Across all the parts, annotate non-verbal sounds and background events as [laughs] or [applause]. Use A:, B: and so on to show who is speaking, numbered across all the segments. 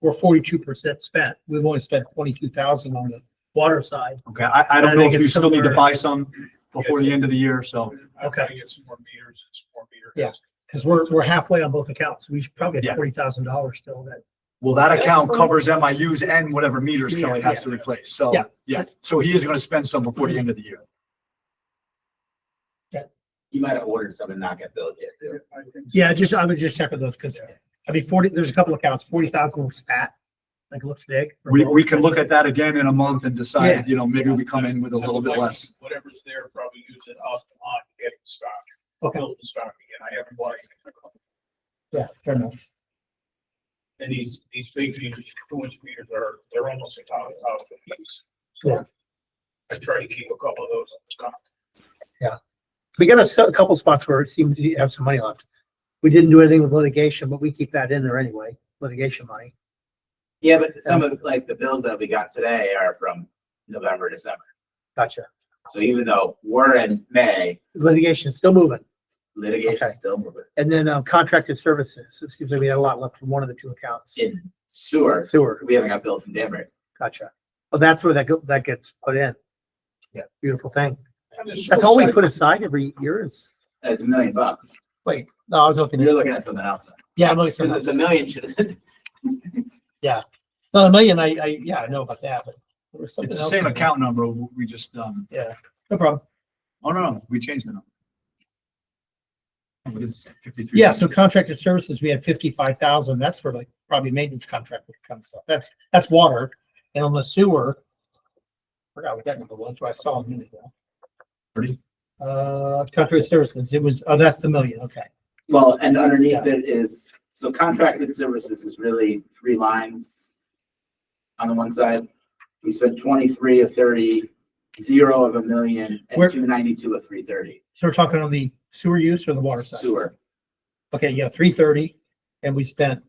A: we're forty-two percent spent. We've only spent twenty-two thousand on the water side.
B: Okay, I, I
A: I
B: don't know
A: think
B: if you
A: it's
B: still need to
A: somewhere-
B: buy some before the end of the year, so.
C: I
A: Okay.
C: gotta get some more meters, some more meter.
A: Yeah. Because we're, we're halfway on both accounts. We should probably
B: Yeah.
A: have forty thousand dollars still that.
B: Well, that account covers MIUs and whatever meters Kelly has to replace, so,
A: Yeah.
B: yeah, so he is gonna spend some before the end of the year.
D: You might have ordered some and not got billed yet, too.
C: I think so.
A: Yeah, just, I would just check with those because, I mean, forty, there's a couple accounts, forty thousand looks fat, like looks big.
B: We, we can look at that again in a month and decide,
A: Yeah.
B: you know, maybe we come in with a
C: I would
B: little bit
C: like to
B: less.
C: see Whatever's there, probably use it up on getting stock.
A: Okay.
C: Build the stock again. I haven't watched. it.
A: Yeah, fair enough.
C: And these, these big meters, two inch meters are, they're almost a top, top of the piece.
A: Yeah.
C: I try to keep a couple of those on stock.
A: We got a s- a couple spots where it seems to have some money left. We didn't do anything with litigation, but we keep that in there anyway, litigation money.
D: Yeah, but some of, like, the bills that we got today are from November, December.
A: Gotcha.
D: So even though we're in May,
A: Litigation is still moving.
D: litigation
A: Okay.
D: is still moving.
A: And then um, contracted services. It seems like we had a lot left from one of the two accounts.
D: In sewer,
A: Sewer,
D: we haven't got billed from Denver.
A: gotcha. Well, that's where that go, that gets put in.
B: Yeah.
A: Beautiful thing.
C: And it's
A: That's all we
C: still-
A: put aside every year is.
D: That's a million bucks.
A: Wait, no, I was looking.
D: You're looking at something else now.
A: Yeah, I'm looking.
D: Because the million should,
A: Not a million, I, I, yeah, I know about that, but there was
B: It's the same account number, we just, um,
A: No problem.
B: oh, no, no, we changed the number. What is it, 53?
A: Yeah, so contracted services, we had fifty-five thousand. That's for like probably maintenance contract with kind of stuff. That's, that's water. And on the sewer, forgot what that number was, but I saw a minute ago.
B: Thirty?
A: Uh, contracted services, it was, oh, that's the million, okay.
D: [laughs] well, and underneath it is, so contracted services is really three lines. On the one side, we spent twenty-three of thirty, zero of a million,
A: Where-
D: and two ninety-two of three thirty.
A: So we're talking on the sewer use or the water side?
D: Sewer,
A: Okay, yeah, three thirty, and we spent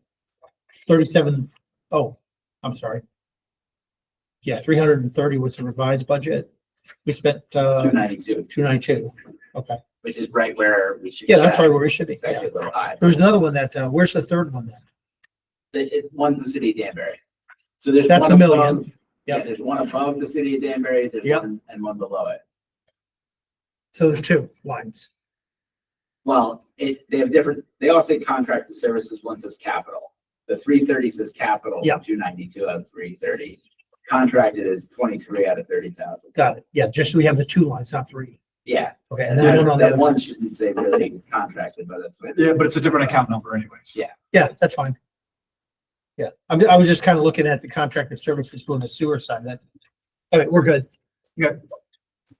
A: thirty-seven, oh, I'm sorry. Yeah, three hundred and thirty was the revised budget. We spent,
D: two
A: uh,
D: ninety-two,
A: two ninety-two. Okay,
D: which is right where we should.
A: yeah, that's
D: be
A: right
D: at.
A: where we should be.
D: It's
A: Yeah.
D: actually a little high.
A: There's another one that, uh, where's the third one then?
D: It, it, one's the city of Danbury. So there's.
A: That's
D: one
A: the million.
D: above- Yeah,
A: Yep.
D: there's one above the city of Danbury, there's
A: Yep.
D: one, and one below it.
A: So there's two lines.
D: Well, it, they have different, they all say contracted services, one says capital. The three thirty says capital.
A: Yeah.
D: Two ninety-two out of three thirty. Contracted is twenty-three out of thirty thousand.
A: Got it. Yeah, just so we have the two lines, not three.
D: Yeah,
A: Okay, and then I don't know. the
D: that
A: other
D: one
A: one.
D: shouldn't say really contracted, but that's. what it
B: Yeah,
D: is.
B: but it's a different account number anyways.
A: Yeah, that's fine. Yeah, I'm, I was just kind of looking at the contracted services doing the sewer side. That, all right, we're good.
B: Good.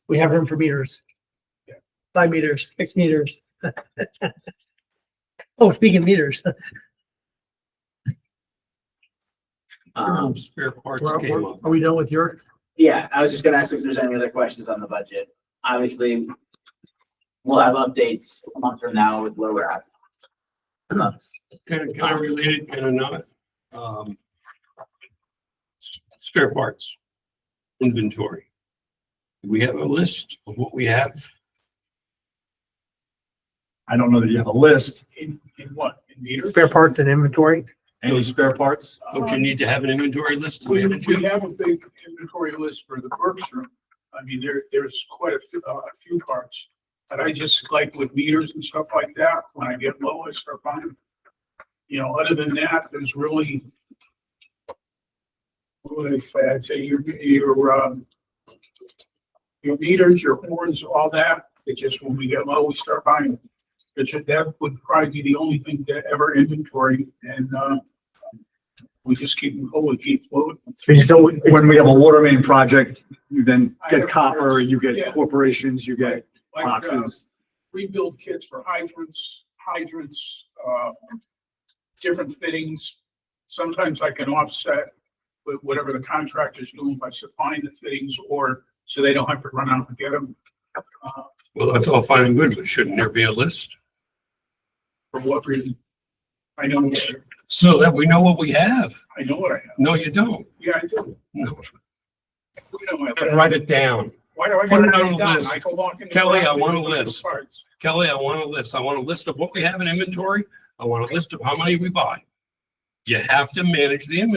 A: We have room for meters.
C: Yeah.
A: Five meters, six meters. [laughs] Oh, speaking of meters,
D: Um,
C: Spare parts
A: we're-
C: came
A: we're-
C: up.
A: are we done with your?
D: yeah, I was just gonna ask if there's any other questions on the budget. Obviously, we'll have updates a month from now with where we're at.
C: Kind of, kind of related, kind of not. Um, s- Spare parts inventory. Do we have a list of what we have?
B: I don't know that you have a list.
C: In, in what? In meters? Um,
A: parts and inventory?
B: Any spare parts?
E: Don't you need to have an inventory list? to
C: We,
E: manage it?
C: we have a big inventory list for the Burke's room. I mean, there, there's quite a few, uh, a few parts. And I just like with meters and stuff like that, when I get low, I start buying. them. You know, other than that, there's really. What would I say? I'd say your, your, um. Your meters, your horns, all that, it's just when we get low, we start buying. them. It should, that would probably be the only thing to ever inventory and, uh. We just keep, oh, we keep floating.
A: We just don't,
B: When we have a water main project, you then get
C: I-
B: copper, you get
C: Yeah.
B: corporations, you get
C: Like, uh,
B: boxes.
C: rebuild kits for hydrants, hydrants, uh, different fittings. Sometimes I can offset with whatever the contractor's doing by supplying the fittings or so they don't have to run out and get them. Uh,
E: Well, that's all fine and good, but shouldn't there be a list?
C: For what reason? I know, what-
E: So that we know what we have.
C: I know what I have.
E: No, you don't.
C: Yeah, I do.
E: No,
C: You know,
E: You gotta
C: I-
E: write it down.
C: Why do I?
E: Put
C: gotta
E: it on
C: write
E: the
C: down?
E: list.
C: I can walk in the
E: Kelly, I
C: garage and
E: want a
C: look at the
E: list.
C: parts.
E: Kelly, I want a list. I want a list of what we have in inventory. I want a list of how many we buy. You have to manage the inventory.